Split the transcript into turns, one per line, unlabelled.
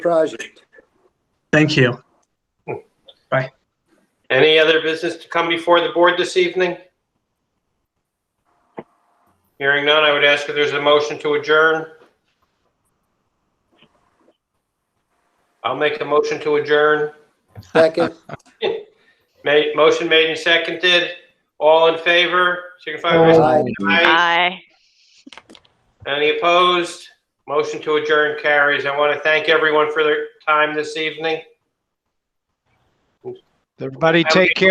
project.
Thank you.
Any other business to come before the board this evening? Hearing none, I would ask if there's a motion to adjourn. I'll make a motion to adjourn.
Second,
Ma- motion made and seconded. All in favor, signify by saying
Aye.
aye.
Aye.
Any opposed? Motion to adjourn carries. I want to thank everyone for their time this evening.
Everybody
Have a
take care.